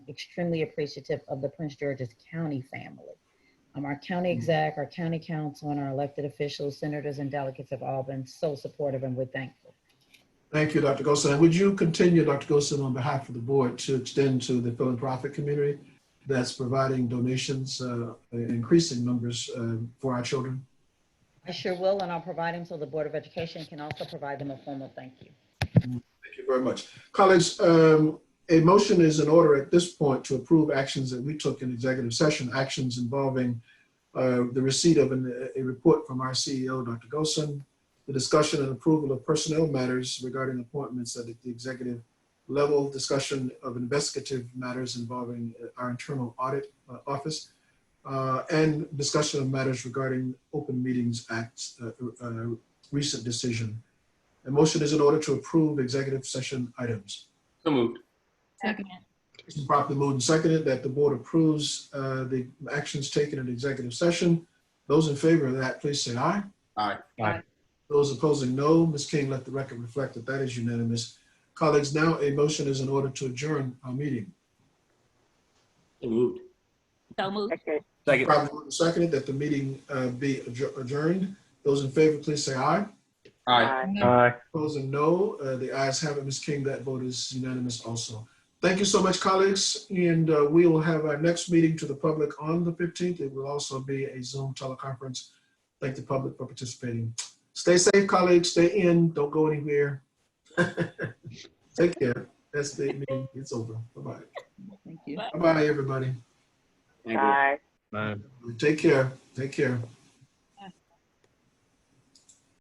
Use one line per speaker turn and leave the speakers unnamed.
extremely appreciative of the Prince George's County family. Um, our county exec, our county council, and our elected officials, senators, and delegates have all been so supportive, and we're thankful.
Thank you, Dr. Gosin. Would you continue, Dr. Gosin, on behalf of the board to extend to the philanthropic community that's providing donations, uh, in increasing numbers uh, for our children?
I sure will, and I'll provide them so the Board of Education can also provide them a formal thank you.
Thank you very much. Colleagues, um, a motion is in order at this point to approve actions that we took in executive session, actions involving uh, the receipt of an- a report from our E CEO, Dr. Gosin, the discussion and approval of personnel matters regarding appointments at the executive level, discussion of investigative matters involving uh, our internal audit uh, office, uh, and discussion of matters regarding Open Meetings Act's uh, uh, recent decision. A motion is in order to approve executive session items.
So moved.
Second.
It's been properly moved and seconded that the board approves uh, the actions taken in executive session. Those in favor of that, please say aye.
Aye.
Aye.
Those opposing, no. Ms. King, let the record reflect that that is unanimous. Colleagues, now a motion is in order to adjourn our meeting.
So moved.
So moved.
It's Properly moved and seconded that the meeting uh, be adjour- adjourned. Those in favor, please say aye.
Aye.
Aye.
Opposing, no. Uh, The ayes have it, Ms. King. That vote is unanimous also. Thank you so much, colleagues, and uh, we will have our next meeting to the public on the 15th. It will also be a Zoom teleconference. Thank the public for participating. Stay safe, colleagues. Stay in. Don't go anywhere. Take care. That's the meeting. It's over. Bye-bye.
Thank you.
Bye-bye, everybody.
Thank you.
Take care. Take care.